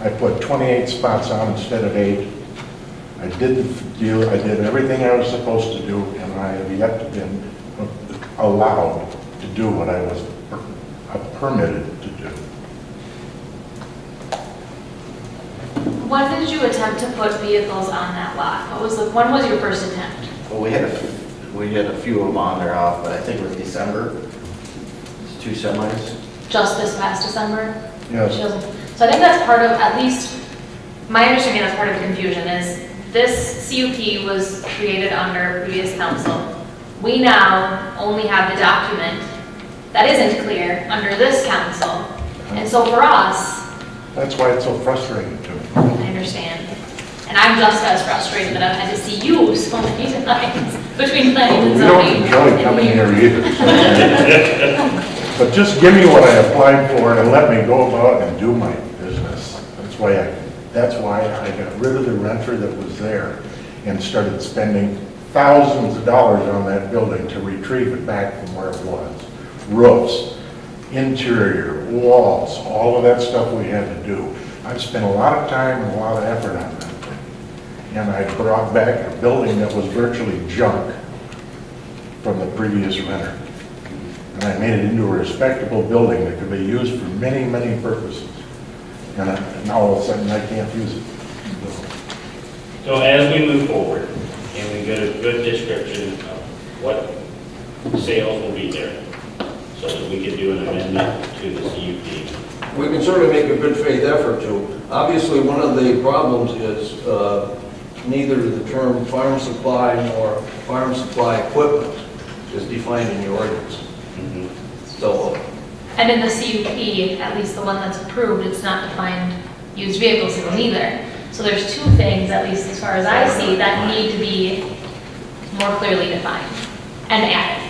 I put 28 spots on instead of eight. I did the deal, I did everything I was supposed to do, and I have yet to been allowed to do what I was per- uh, permitted to do. When did you attempt to put vehicles on that lot? What was, the when was your first attempt? Well, we had a, we had a few of them on there off, but I think it was December, It's two semis. Just this past December? She Yes, doesn't- So I think that's part of, at least, my understanding that's part of the confusion is this CUP was created under previous council. We now only have the document that isn't clear under this council. And so for us, that's why it's so frustrating to me. I understand, and I'm just as frustrated that I've had to see you so many times between planning and We zoning. don't enjoy and coming here either. so. But just give me what I applied for and let me go about and do my business. That's why I, that's why I got rid of the renter that was there and started spending thousands of dollars on that building to retrieve it back from where it was. Roofs, interior, walls, all of that stuff we had to do. I've spent a lot of time and a lot of effort on that. And I brought back a building that was virtually junk from the previous renter. And I made it into a respectable building that could be used for many, many purposes. And I- and now all of a sudden, I can't use it. So as we move forward, and we get a good description of what sales will be there, so that we can do an amendment to the CUP. We can certainly make a good faith effort to. Obviously, one of the problems is uh, neither the term farm supply nor farm supply equipment is defined in the ordinance. So, And in the CUP, at least the one that's approved, it's not defined used vehicle sales either. So there's two things, at least as far as I see, that need to be more clearly defined and added.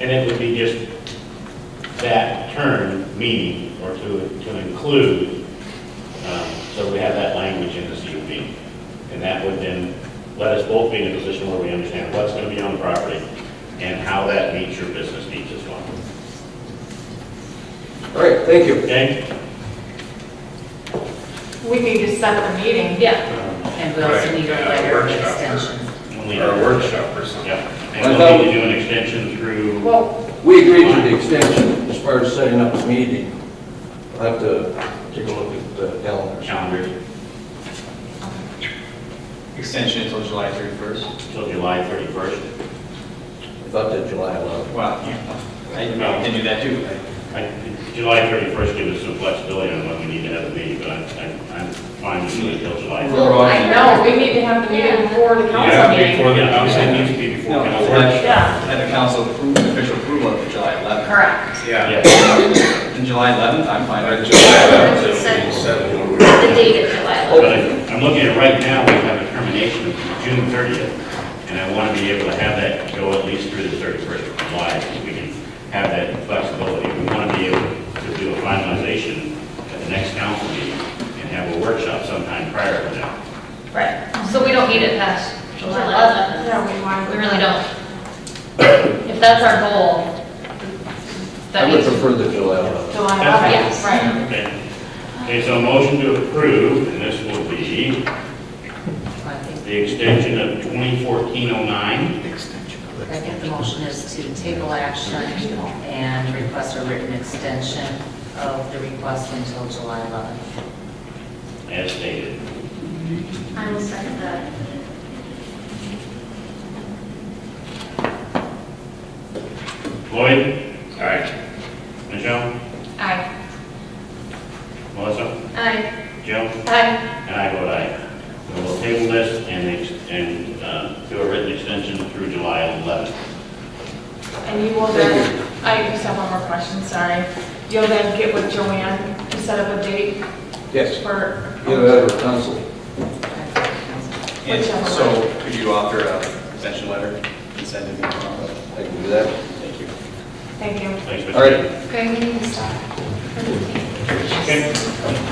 And it would be just that term, meaning, or to, to include, um, so we have that language in the CUP. And that would then let us both be in a position where we understand what's going to be on the property and how that meets your business needs as well. all right, thank you. Okay? We need to set the meeting. Yeah. And we also need a letter of extension. Only- Or a workshop or something. Yeah, I and we'll thought- need to do an extension through, Well, we agreed to the extension as far as setting up the meeting. I'll have to take a look at the calendar. calendar Extension until July 31st. till July 31st. I thought that July 11th. Wow, I can do that too. I- July 31st gives us some flexibility on when we need to have a meeting, but I'm, I'm- I'm fine with doing it till July. We're all- I know, we need to have the meeting before the council Yeah, meeting. before the Yeah, obviously, it needs council. to be before No, council. let- Yeah. Let the council approve, official approval of the July 11th. Correct. Yeah. Yeah, And July 11th, I'm fine. with it. The date of July 11th. but I'm I'm looking at right now, we have a termination of June 30th, and I want to be able to have that go at least through the 31st of July, so we can have that flexibility. We want to be able to do a finalization at the next council meeting and have a workshop sometime prior to that. Right, so we don't need it past July 11th. Yeah, we want. We really don't. If that's our goal, that I would means, prefer the July 11th. July Yes. 11th, right. Okay, Okay. so motion to approve, and this will be I think, the extension of 2014-09. I think the motion is to table action and request a written extension of the request until July 11th. as stated. I will second that. Lloyd? Aye. Michelle? Aye. Melissa? Aye. Joe? Aye. And I vote aye. So We'll table this and, ex- and uh, do a written extension through July 11th. And you will then, I just have one more question, sorry. You'll then get with Joanne to set up a date Yes, for. either that or council. And Whichever so could you author a extension letter and send it to me? I can do that. Thank you. Thank you. Thanks, Mr. All right. Greg, we need to stop. Okay.